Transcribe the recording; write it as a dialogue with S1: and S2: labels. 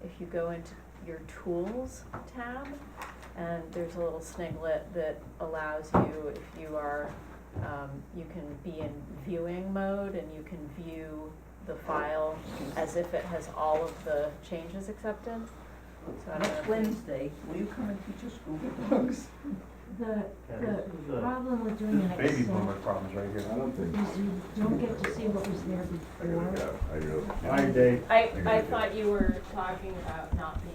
S1: if you go into your tools tab, and there's a little sniglet that allows you, if you are, um, you can be in viewing mode and you can view the file as if it has all of the changes accepted. So I don't know if
S2: Next
S1: you-
S2: Wednesday, will you come and teach us Google Docs?
S3: The
S4: Yeah,
S3: Good.
S4: this is a
S3: problem with doing an
S4: baby
S3: Excel
S4: boomer problems right
S5: I
S4: here.
S5: don't think,
S3: is you don't get to see what was there
S5: I gotta
S3: before.
S5: go, I gotta.
S4: All right, Dave.
S1: I,
S5: I
S1: I
S5: gotta go.
S1: thought you were talking about not being